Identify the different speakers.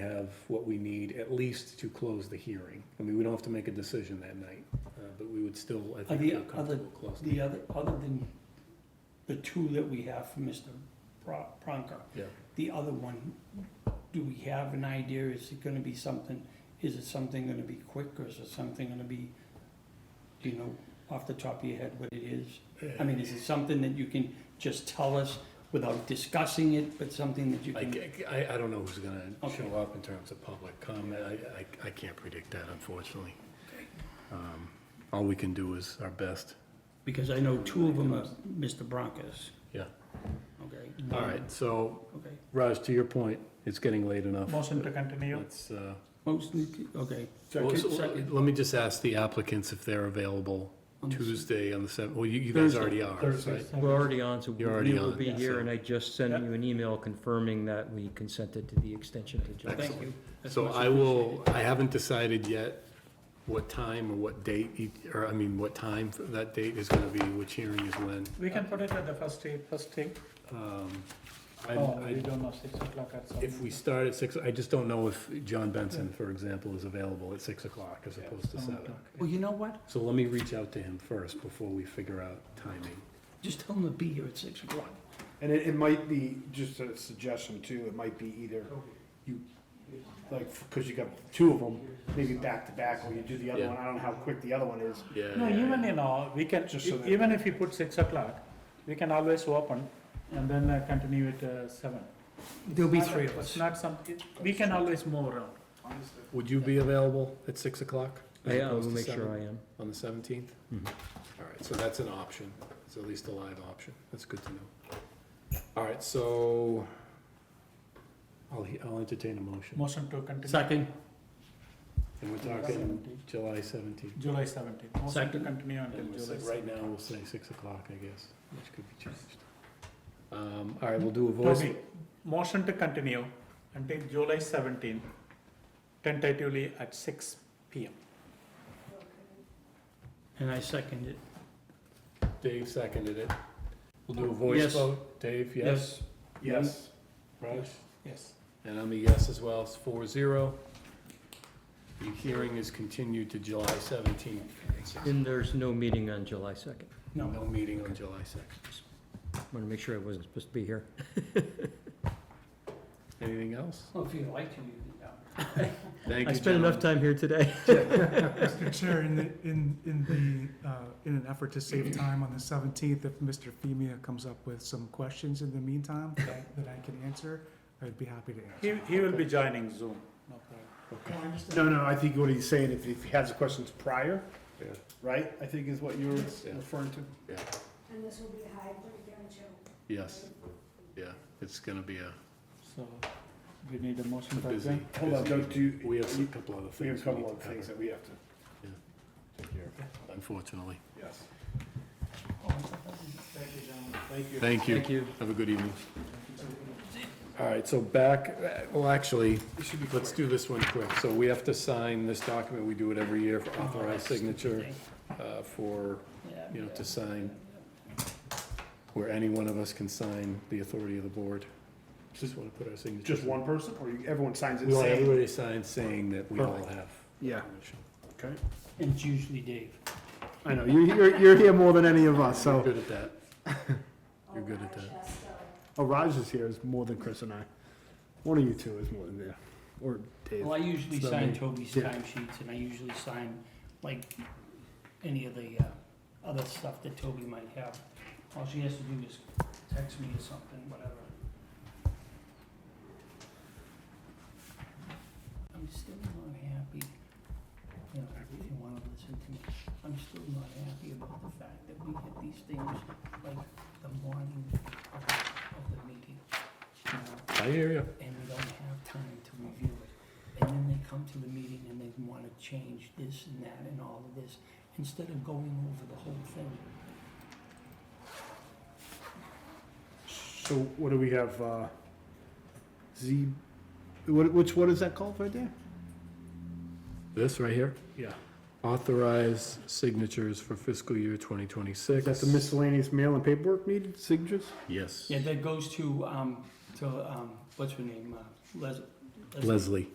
Speaker 1: have what we need at least to close the hearing. I mean, we don't have to make a decision that night, uh, but we would still, I think,
Speaker 2: the
Speaker 1: feel
Speaker 2: other-
Speaker 1: comfortable closing.
Speaker 2: The other, other than the two that we have for Mr. Pro- Pronker,
Speaker 1: Yeah,
Speaker 2: the other one, do we have an idea, is it gonna be something, is it something gonna be quick, or is it something gonna be, do you know, off the top of your head what it is? I mean, is it something that you can just tell us without discussing it, but something that you
Speaker 1: I,
Speaker 2: can?
Speaker 1: I, I don't know who's gonna
Speaker 2: Okay.
Speaker 1: show up in terms of public comment, I, I, I can't predict that unfortunately. Um, All we can do is our best,
Speaker 2: Because I know two of them are Mr. Bronkers,
Speaker 1: yeah.
Speaker 2: okay?
Speaker 1: All right, so,
Speaker 2: Okay,
Speaker 1: Raj, to your point, it's getting late enough.
Speaker 3: Motion to continue.
Speaker 1: Let's, uh,
Speaker 2: mostly, okay.
Speaker 1: well, so-
Speaker 2: Second.
Speaker 1: let me just ask the applicants if they're available
Speaker 2: On the-
Speaker 1: Tuesday on the seventh, well, you, you guys already are, right?
Speaker 4: We're already on, so we
Speaker 1: You're already
Speaker 4: will
Speaker 1: on,
Speaker 4: be
Speaker 1: yeah, so-
Speaker 4: here, and I just sent you an email confirming that we consented to the extension to July.
Speaker 2: Thank you. That's
Speaker 1: So
Speaker 2: much
Speaker 1: I will, I haven't decided yet what time or what date, each- or I mean, what time for that date is gonna be, which hearing is when.
Speaker 3: We can put it at the first day, first day.
Speaker 1: Um, I-
Speaker 3: Oh,
Speaker 1: I-
Speaker 3: we don't know, six o'clock at some.
Speaker 1: If we start at six, I just don't know if John Benson, for example, is available at six o'clock as opposed to
Speaker 3: some
Speaker 1: seven.
Speaker 3: o'clock.
Speaker 2: Well, you know what?
Speaker 1: So let me reach out to him first before we figure out timing.
Speaker 2: Just tell them to be here at six o'clock.
Speaker 5: And it, it might be, just a suggestion too, it might be either you, like, cause you got two of them, maybe back to back, or you do the other
Speaker 1: Yeah.
Speaker 5: one, I don't know how quick the other one is.
Speaker 1: Yeah.
Speaker 3: No, even, you know, we can,
Speaker 5: Just so that-
Speaker 3: even if you put six o'clock, we can always open and then uh, continue at uh, seven.
Speaker 2: There'll be
Speaker 3: Not-
Speaker 2: three of
Speaker 3: It's
Speaker 2: us.
Speaker 3: not something, we can always move around.
Speaker 1: Would you be available at six o'clock? as
Speaker 4: I I will
Speaker 1: opposed to
Speaker 4: make sure
Speaker 1: seven
Speaker 4: I am.
Speaker 1: On the seventeenth?
Speaker 4: Mhm.
Speaker 1: All right, so that's an option. It's at least a live option. That's good to know. All right, so I'll, he- I'll entertain a motion.
Speaker 3: Motion to continue.
Speaker 2: Second,
Speaker 1: And we're talking July seventeenth.
Speaker 3: July seventeenth. Motion to
Speaker 2: Second.
Speaker 3: continue until
Speaker 1: And we'll
Speaker 3: July
Speaker 1: say,
Speaker 3: seventeenth.
Speaker 1: right now, we'll say six o'clock, I guess, which could be changed. Um, all right, we'll do a voice.
Speaker 3: Toby, motion to continue until July seventeenth, tentatively at six P M.
Speaker 2: and I second it.
Speaker 1: Dave seconded it. We'll do a voice
Speaker 2: Yes.
Speaker 1: vote. Dave, yes?
Speaker 5: Yes,
Speaker 1: Raj?
Speaker 3: Yes.
Speaker 1: And I'm a yes as well, it's four zero. The hearing is continued to July seventeenth.
Speaker 4: And there's no meeting on July 2nd.
Speaker 1: No, no meeting on July second.
Speaker 4: Want to make sure I wasn't supposed to be here.
Speaker 1: Anything else?
Speaker 2: Well, if you like to, you can. yeah.
Speaker 1: Thank
Speaker 4: I
Speaker 1: you,
Speaker 4: spent
Speaker 1: gentlemen.
Speaker 4: enough time here today.
Speaker 6: Mr. Chair, in, the- in, in the, uh, in an effort to save time on the seventeenth, if Mr. Femia comes up with some questions in the meantime that that I can answer, I'd be happy to
Speaker 3: He,
Speaker 6: answer.
Speaker 3: he will be joining Zoom, no problem.
Speaker 5: no, no, I think what he's saying, if, if he has the questions prior,
Speaker 1: Yeah.
Speaker 5: right, I think is what you were
Speaker 1: Yeah.
Speaker 5: referring to.
Speaker 7: And this will be a hybrid, don't you?
Speaker 1: Yes, yeah, it's gonna be a
Speaker 3: So we need a motion
Speaker 1: a
Speaker 3: to
Speaker 1: busy.
Speaker 3: adjourn.
Speaker 5: Hold on,
Speaker 1: busy
Speaker 5: don't do-
Speaker 1: evening. We have a couple other things.
Speaker 5: We have a couple
Speaker 1: need
Speaker 5: of
Speaker 1: to
Speaker 5: things
Speaker 1: cover,
Speaker 5: that we have to
Speaker 1: Yeah.
Speaker 5: take care of.
Speaker 1: Unfortunately.
Speaker 5: Yes.
Speaker 1: Thank you.
Speaker 4: Thank you.
Speaker 1: Have a good evening. All right, so back, well, actually, let's do this one quick. So we have to sign this document. We do it every year for authorized signature uh, for, you know, to sign, where any one of us can sign the authority of the board. Just want to put our signature.
Speaker 5: Just one person, or you- everyone signs it
Speaker 1: We want
Speaker 5: saying?
Speaker 1: everybody to sign saying that we all have.
Speaker 5: Yeah,
Speaker 1: permission.
Speaker 5: okay.
Speaker 2: And it's usually Dave.
Speaker 5: I know, you're, you're, you're here more than any of us,
Speaker 1: You're
Speaker 5: so.
Speaker 1: good at that. You're good at
Speaker 7: Or
Speaker 1: that.
Speaker 7: Rochester.
Speaker 5: Oh, Raj is here, is more than Chris and I. One of you two is more than there, or Dave.
Speaker 2: Well, I usually
Speaker 1: It's not
Speaker 2: sign
Speaker 1: me.
Speaker 2: Toby's
Speaker 5: Yeah.
Speaker 2: time sheets, and I usually sign, like, any of the, uh, other stuff that Toby might have. All she has to do is text me or something, whatever. I'm still not happy, you know, if you wanna listen to me, I'm still not happy about the fact that we get these things, like, the morning of, of the meeting, you know?
Speaker 1: I hear you.
Speaker 2: and we don't have time to review it. And then they come to the meeting and they wanna change this and that and all of this, instead of going over the whole thing.
Speaker 5: So what do we have, uh, Z, what, which, what is that called right there?
Speaker 1: This right here,
Speaker 5: Yeah.
Speaker 1: authorize signatures for fiscal year 2026.
Speaker 5: Is that the miscellaneous mail and paperwork needed signatures?
Speaker 1: Yes.
Speaker 2: Yeah, that goes to, um, to, um, what's her name, uh, Les-
Speaker 1: Leslie.